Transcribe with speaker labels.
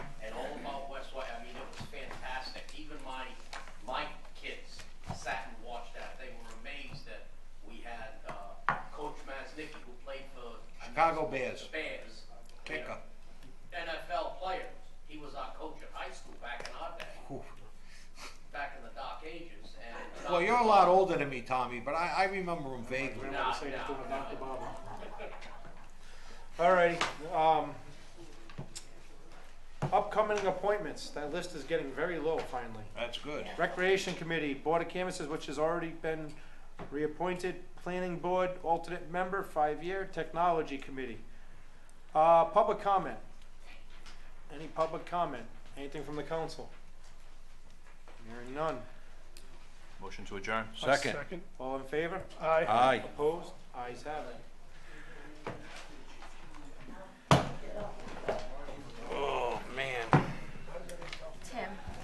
Speaker 1: uh,
Speaker 2: Bears.
Speaker 1: Bears.
Speaker 2: Kicker.
Speaker 1: NFL player. He was our coach at high school back in our day,
Speaker 2: Whew.
Speaker 1: back in the dark ages. And
Speaker 2: Well, you're a lot older than me, Tommy, but I, I remember him
Speaker 3: My
Speaker 2: vaguely.
Speaker 3: grandmother
Speaker 1: Nah,
Speaker 3: said
Speaker 1: nah,
Speaker 3: to
Speaker 1: nah,
Speaker 3: Dr.
Speaker 1: nah.
Speaker 3: Baba. All righty, um, upcoming appointments, that list is getting very low finally.
Speaker 2: That's good.
Speaker 3: Recreation Committee, Board of Canvassers, which has already been reappointed, Planning Board, alternate member, five-year, Technology Committee. Uh, public comment. Any public comment? Anything from the council? Hearing none.
Speaker 4: Motion to adjourn.
Speaker 5: Second.
Speaker 3: All in favor?
Speaker 5: Aye.
Speaker 3: Opposed? Ayes have it.